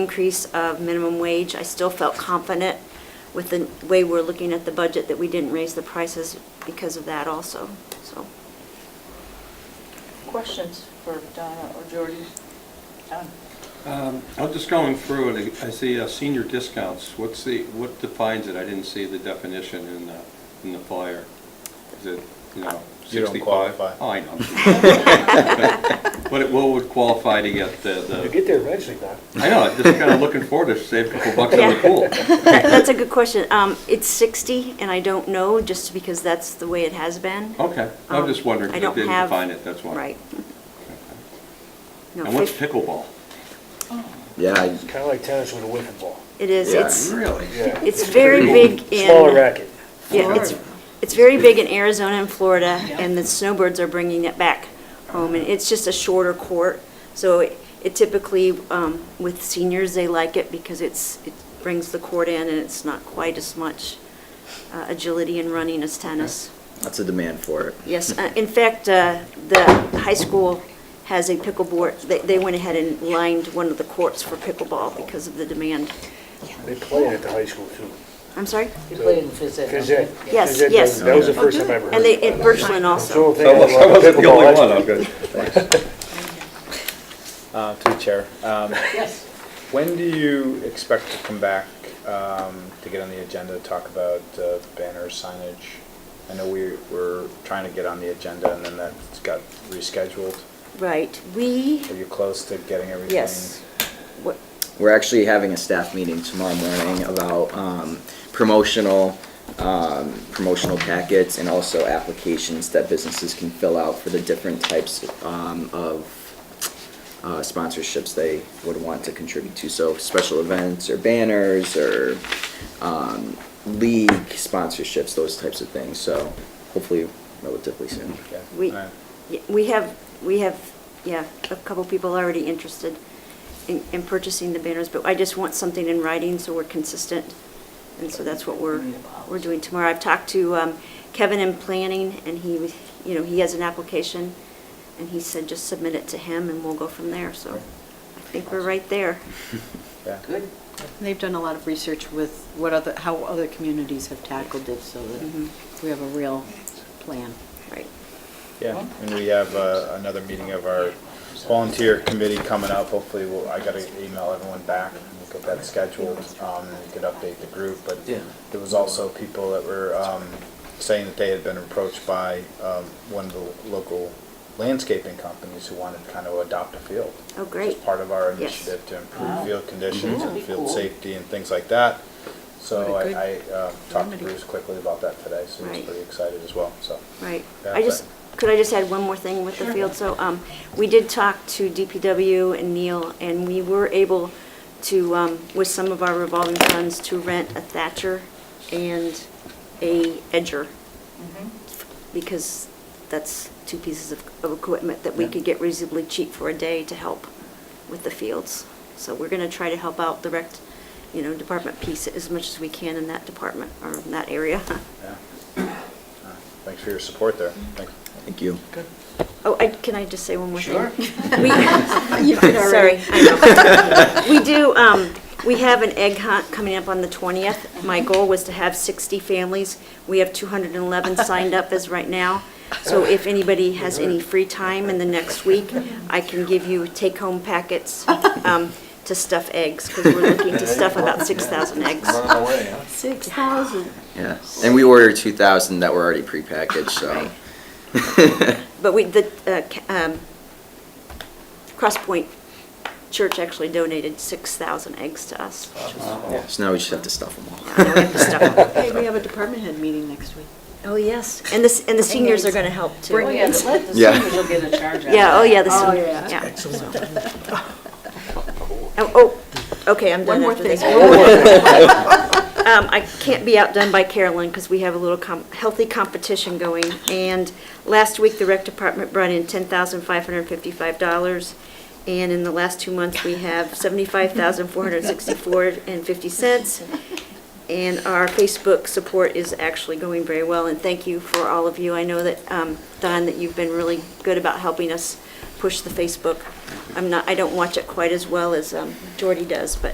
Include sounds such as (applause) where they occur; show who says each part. Speaker 1: increase of minimum wage. I still felt confident with the way we're looking at the budget that we didn't raise the prices because of that also, so.
Speaker 2: Questions for Donna or Jordy?
Speaker 3: (laughs)
Speaker 2: Donna?
Speaker 4: Um, I'm just going through it, I see uh, senior discounts, what's the, what defines it? I didn't see the definition in the, in the flyer. Is it, you know,
Speaker 5: You don't
Speaker 4: 65?
Speaker 5: qualify.
Speaker 4: Oh, I (laughs) know. But it- what would qualify to get the,
Speaker 6: You
Speaker 4: the,
Speaker 6: get there eventually, Don.
Speaker 4: I know, I'm just kind of looking
Speaker 6: (laughs)
Speaker 4: forward to save a couple bucks on the
Speaker 1: Yeah.
Speaker 4: pool.
Speaker 1: That- That's a good question. Um, It's 60, and I don't know, just because that's the way it has been.
Speaker 4: Okay, I'm just wondering,
Speaker 1: Um, I
Speaker 4: if
Speaker 1: don't
Speaker 4: it didn't
Speaker 1: have-
Speaker 4: define it, that's why.
Speaker 1: Right. No,
Speaker 4: And what's
Speaker 1: fif-
Speaker 4: pickleball?
Speaker 7: Yeah, I-
Speaker 6: It's kind of like tennis with a whiffing ball.
Speaker 1: It is,
Speaker 7: Yeah.
Speaker 1: it's,
Speaker 4: Really?
Speaker 6: Yeah.
Speaker 1: it's very big in.
Speaker 6: Smaller racket.
Speaker 1: Yeah, it's, it's very big in Arizona and Florida, and the snowbirds are bringing it back home, and it's just a shorter court. So it- it typically, um, with seniors, they like it because it's, it brings the court in, and it's not quite as much uh, agility and running as tennis.
Speaker 7: that's a demand for it.
Speaker 1: Yes, uh, in fact, uh, the high school has a pickleboard, they, they went ahead and lined one of the courts for pickleball because of the demand.
Speaker 6: They play it at the high school too.
Speaker 1: I'm sorry?
Speaker 2: You played in phys ed.
Speaker 6: Phys ed.
Speaker 1: Yes,
Speaker 6: Phys ed
Speaker 1: yes.
Speaker 6: does- That was the
Speaker 7: Oh,
Speaker 6: first time I ever heard.
Speaker 1: And they, at Birchland
Speaker 6: It's the
Speaker 1: also.
Speaker 6: only thing I
Speaker 4: I
Speaker 6: love
Speaker 4: wasn't the
Speaker 6: pickleball,
Speaker 4: only
Speaker 6: that's-
Speaker 4: one, I'm good.
Speaker 5: Uh, To the chair, um,
Speaker 2: Yes.
Speaker 5: when do you expect to come back um, to get on the agenda, to talk about uh, banner signage? I know we were trying to get on the agenda and then that got rescheduled.
Speaker 1: Right, we,
Speaker 5: Are you close to getting everything?
Speaker 1: yes. What-
Speaker 7: We're actually having a staff meeting tomorrow morning about um, promotional, um, promotional packets and also applications that businesses can fill out for the different types um, of uh, sponsorships they would want to contribute to. So special events or banners or um, league sponsorships, those types of things. So hopefully relatively soon.
Speaker 5: Okay.
Speaker 1: We,
Speaker 5: All right.
Speaker 1: yeah, we have, we have, yeah, a couple people already interested in, in purchasing the banners, but I just want something in writing so we're consistent. And so that's what we're, we're doing tomorrow. I've talked to um, Kevin in planning and he, was- you know, he has an application and he said just submit it to him and we'll go from there. So I think we're right there.
Speaker 5: Yeah.
Speaker 2: Good.
Speaker 3: They've done a lot of research with what other, how other communities have tackled it, so
Speaker 1: Mhm.
Speaker 3: that we have a real plan.
Speaker 1: Right.
Speaker 5: Yeah,
Speaker 3: Mm-hmm.
Speaker 5: and we have uh, another meeting of our volunteer committee coming up. Hopefully, we'll, I gotta email everyone back and get that scheduled, um, and could update the group, but
Speaker 7: Yeah.
Speaker 5: there was also people that were, um, saying that they had been approached by, um, one of the local landscaping companies who wanted to kind of adopt a field.
Speaker 1: Oh, great.
Speaker 5: As part of our
Speaker 1: Yes. Mm-hmm.
Speaker 5: initiative to improve
Speaker 2: Wow.
Speaker 5: field conditions
Speaker 2: Mhm.
Speaker 5: and
Speaker 2: That'd be
Speaker 5: field
Speaker 2: cool.
Speaker 5: safety and things like that. So
Speaker 3: What a
Speaker 5: I, I, uh, talked to
Speaker 3: remedy.
Speaker 5: Bruce quickly about that today, so he's
Speaker 1: Right.
Speaker 5: pretty excited as well, so.
Speaker 1: Right.
Speaker 5: Yeah,
Speaker 1: I just, could I just add one more thing with the field? So um, we did talk to DPW and Neil, and we were able to, um, with some of our revolving funds, to rent a thatcher and a edger, Mm-hmm. because that's two pieces of of equipment that we could get reasonably cheap for a day to help with the fields. So we're going to try to help out the rec, you know, department piece as much as we can in that department, or in that area.
Speaker 5: Yeah. Uh, Thanks for your support there. Thanks.
Speaker 7: Thank you.
Speaker 1: Oh, I, can I just say one more thing?
Speaker 2: Sure.
Speaker 1: (laughs) We,
Speaker 3: You did
Speaker 1: sorry,
Speaker 3: already.
Speaker 1: I know. (laughs) We do, um, we have an egg hunt coming up on the twentieth. My goal was to have sixty families. We have two hundred and eleven signed up as right now. So if anybody has any free time in the next week, I can give you take-home packets, um, to stuff eggs, because we're looking to stuff about six thousand eggs.
Speaker 4: Running away, huh?
Speaker 3: Six thousand.
Speaker 7: Yeah. And we ordered 2,000 that were already prepackaged, so. (laughs)
Speaker 1: But we, the, uh, ca- um, Cross Point Church actually donated 6,000 eggs to us. which was-
Speaker 7: So now we just have to stuff them all.
Speaker 1: I know, we have to stuff 'em.
Speaker 3: Hey, we have a department head meeting next week.
Speaker 1: Oh, yes, and the, s- and the seniors are going to help too.
Speaker 2: Well, yeah, the let- the
Speaker 7: Yeah.
Speaker 2: seniors will get a charge out of
Speaker 1: Yeah, oh, yeah,
Speaker 2: that.
Speaker 1: the
Speaker 3: Oh,
Speaker 1: seniors,
Speaker 3: yeah.
Speaker 1: yeah. (laughs) Oh, oh, okay, I'm
Speaker 3: One
Speaker 1: done
Speaker 3: more
Speaker 1: after this.
Speaker 3: thing. (laughs)
Speaker 1: Um, I can't be outdone by Carolyn because we have a little com- healthy competition going. And last week, the rec department brought in ten thousand five hundred fifty-five dollars. And in the last two months, we have seventy-five thousand four hundred sixty-four and fifty cents. And our Facebook support is actually going very well, and thank you for all of you. I know that, um, Don, that you've been really good about helping us push the Facebook I'm not, I don't watch it quite as well as um, Jordy does, but